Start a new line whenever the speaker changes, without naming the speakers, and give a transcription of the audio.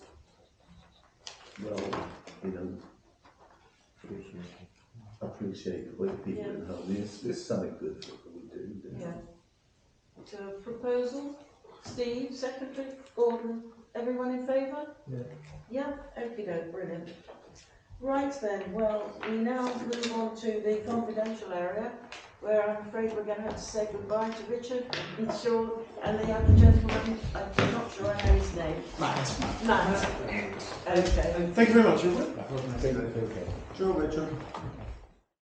well, you know, appreciate the way people at home, it's, it's something good for what we do. you know.
Yeah. So proposal, Steve, secretary, Gordon, everyone in favour?
Yeah.
Yeah, okay, go, brilliant. Right then, well, we now move on to the confidential area, where I'm afraid we're gonna have to say goodbye to Richard and Sean and the other gentleman, I'm not sure I know his name. Matt. Matt, okay.
Thank you very much, Robert.
I think that's okay.
Sure, Richard.